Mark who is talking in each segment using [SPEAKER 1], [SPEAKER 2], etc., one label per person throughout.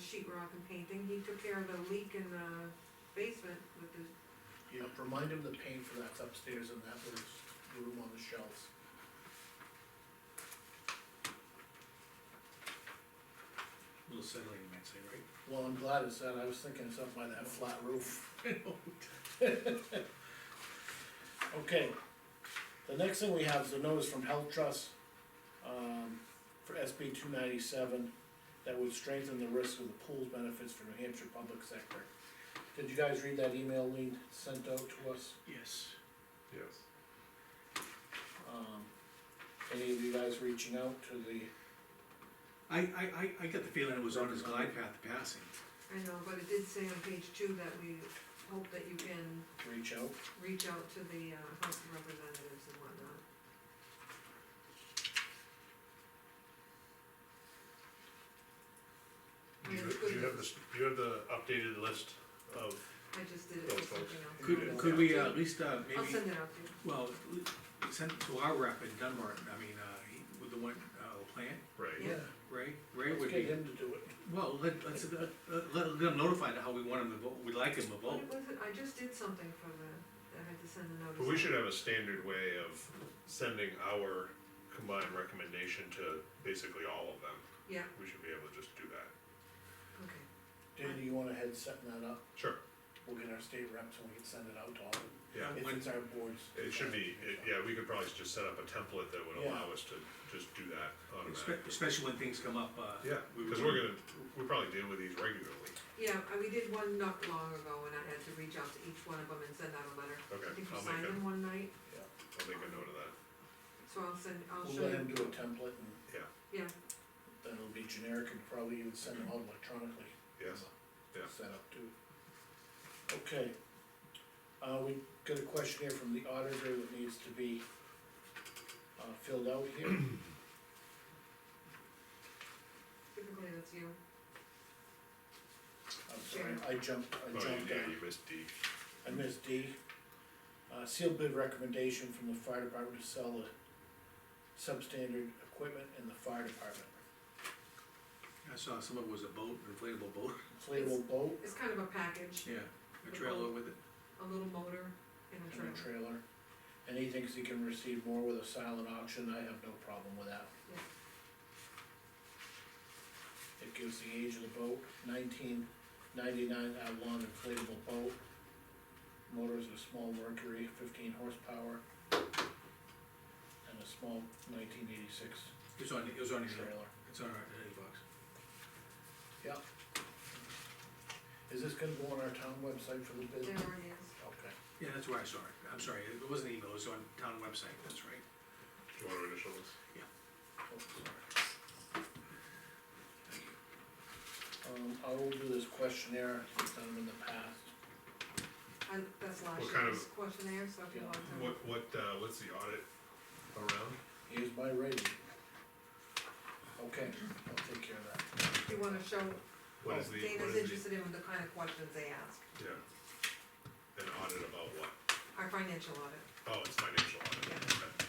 [SPEAKER 1] sheet rock uh, and painting, he took care of the leak in the basement with the,
[SPEAKER 2] Yeah, remind him the paint for that's upstairs in that little room on the shelves.
[SPEAKER 3] Little settling, you might say, right?
[SPEAKER 2] Well, I'm glad it's that, I was thinking it's up by that flat roof. Okay, the next thing we have is a notice from Health Trust, um, for SB two ninety-seven that would strengthen the risk of the pool's benefits for New Hampshire public sector. Did you guys read that email Lee sent out to us?
[SPEAKER 3] Yes.
[SPEAKER 4] Yes.
[SPEAKER 2] Um, any of you guys reaching out to the,
[SPEAKER 3] I, I, I, I got the feeling it was on his glide path to passing.
[SPEAKER 1] I know, but it did say on page two that we hope that you can
[SPEAKER 2] reach out?
[SPEAKER 1] reach out to the, uh, House of Representatives and whatnot.
[SPEAKER 4] Do you, do you have this, do you have the updated list of,
[SPEAKER 1] I just did it with something else.
[SPEAKER 3] Could, could we uh, at least,
[SPEAKER 1] I'll
[SPEAKER 3] uh, maybe,
[SPEAKER 1] send it out to you.
[SPEAKER 3] well, l- send it to our rep in Dunbar, I mean, uh, he- with the one, uh, plant,
[SPEAKER 4] right?
[SPEAKER 1] Yeah.
[SPEAKER 3] Ray, Ray
[SPEAKER 2] Let's
[SPEAKER 3] would
[SPEAKER 2] get
[SPEAKER 3] be,
[SPEAKER 2] him to do it.
[SPEAKER 3] well, let, let's, uh, uh, let, let him notify how we want him to vote, we'd like him to vote.
[SPEAKER 1] What was it? I just did something for the, I had to send a notice.
[SPEAKER 4] But we should have a standard way of sending our combined recommendation to basically all of them.
[SPEAKER 1] Yeah,
[SPEAKER 4] We should be able to just do that.
[SPEAKER 1] okay.
[SPEAKER 2] Dan, do you wanna head setting that up?
[SPEAKER 4] Sure,
[SPEAKER 2] We'll get our state reps and we can send it out to all of them.
[SPEAKER 4] yeah.
[SPEAKER 2] If it's our boards.
[SPEAKER 4] It should be, it- yeah, we could probably just set up a template that would allow us to just do that automatically.
[SPEAKER 3] Espe- Especially when things come up, uh.
[SPEAKER 4] Yeah,
[SPEAKER 3] we-
[SPEAKER 4] cause we're gonna, we probably deal with these regularly.
[SPEAKER 1] Yeah, uh, we did one not long ago, and I had to reach out to each one of them and send out a letter.
[SPEAKER 4] Okay,
[SPEAKER 1] I think you
[SPEAKER 4] I'll
[SPEAKER 1] signed
[SPEAKER 4] make
[SPEAKER 1] them
[SPEAKER 4] a,
[SPEAKER 1] one night,
[SPEAKER 4] I'll make a note of that,
[SPEAKER 1] so I'll send, I'll
[SPEAKER 2] We'll
[SPEAKER 1] show
[SPEAKER 2] let
[SPEAKER 1] you,
[SPEAKER 2] him do a template and
[SPEAKER 4] yeah,
[SPEAKER 1] yeah,
[SPEAKER 2] then it'll be generic and probably even send them out electronically.
[SPEAKER 4] yes, yeah.
[SPEAKER 2] Set up too. Okay. Uh, we got a questionnaire from the auditor that needs to be, uh, filled out here.
[SPEAKER 1] typically that's you.
[SPEAKER 2] I'm sorry, I jumped, I
[SPEAKER 4] Oh, you-
[SPEAKER 2] jumped,
[SPEAKER 4] yeah,
[SPEAKER 2] uh,
[SPEAKER 4] you missed D,
[SPEAKER 2] I missed D. Uh, sealed bid recommendation from the fire department to sell the substandard equipment in the fire department.
[SPEAKER 3] I saw some of it was a boat, inflatable boat,
[SPEAKER 2] Inflatable boat
[SPEAKER 1] It's kind of a package,
[SPEAKER 3] yeah, a trailer with it.
[SPEAKER 1] a little motor and a
[SPEAKER 2] and a
[SPEAKER 1] trailer.
[SPEAKER 2] trailer. And he thinks he can receive more with a silent auction, I have no problem with that.
[SPEAKER 1] Yeah.
[SPEAKER 2] It gives the age of the boat, nineteen ninety-nine Avalon inflatable boat. Motors a small Mercury, fifteen horsepower. And a small nineteen eighty-six
[SPEAKER 3] It's on, it was on your,
[SPEAKER 2] trailer.
[SPEAKER 3] it's on our, inbox.
[SPEAKER 2] Yep. Is this gonna go on our town website for the bid?
[SPEAKER 1] There it is.
[SPEAKER 2] Okay.
[SPEAKER 3] Yeah, that's where I saw it, I'm sorry, it wasn't email, it was on town website, that's right.
[SPEAKER 4] you wanna initial this?
[SPEAKER 2] Oh, sorry. Um, I will do this questionnaire, I've done them in the past.
[SPEAKER 1] I, that's last
[SPEAKER 4] What kind
[SPEAKER 1] year's questionnaire, so if you
[SPEAKER 2] Yeah.
[SPEAKER 1] want to.
[SPEAKER 4] What, what, uh, what's the audit around?
[SPEAKER 2] Here's my rating. Okay, I'll take care of that.
[SPEAKER 1] If you wanna show,
[SPEAKER 4] What is
[SPEAKER 1] Oh,
[SPEAKER 4] the, what
[SPEAKER 1] Dana's
[SPEAKER 4] is the,
[SPEAKER 1] interested in the kind of questions they ask,
[SPEAKER 4] yeah. An audit about what?
[SPEAKER 1] our financial audit,
[SPEAKER 4] Oh, it's financial audit,
[SPEAKER 1] Yeah.
[SPEAKER 4] okay, alright,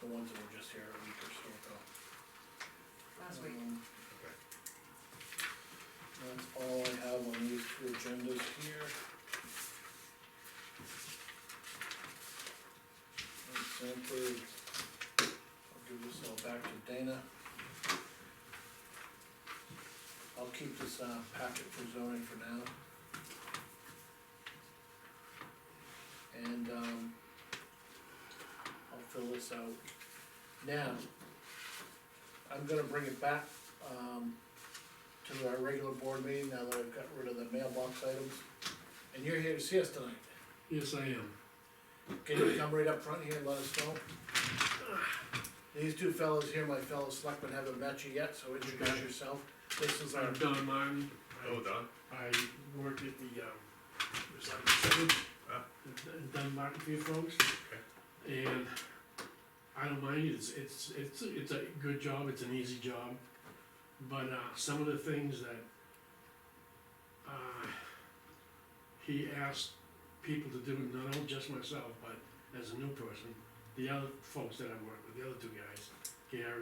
[SPEAKER 2] The ones that were just here a week or so ago.
[SPEAKER 1] last week.
[SPEAKER 2] Um,
[SPEAKER 4] okay.
[SPEAKER 2] That's all I have on these two agendas here. And Sanford, I'll give this all back to Dana. I'll keep this, uh, packet for zoning for now. And, um, I'll fill this out. Now, I'm gonna bring it back, um, to our regular board meeting now that I've got rid of the mailbox items. And you're here to see us tonight.
[SPEAKER 5] Yes, I am.
[SPEAKER 2] Can you come right up front here and let us know? These two fellows here, my fellow selectmen, haven't met you yet, so introduce yourself. This is our,
[SPEAKER 5] I'm Don Martin.
[SPEAKER 4] Oh,
[SPEAKER 5] I-
[SPEAKER 4] Don,
[SPEAKER 5] I work at the, um, recycling center.
[SPEAKER 4] Ah.
[SPEAKER 5] in Dunbarton for you folks. And I don't mind, it's, it's, it's, it's a good job, it's an easy job. But, uh, some of the things that, uh, he asked people to do, not only just myself, but as a new person, the other folks that I work with, the other two guys, Gary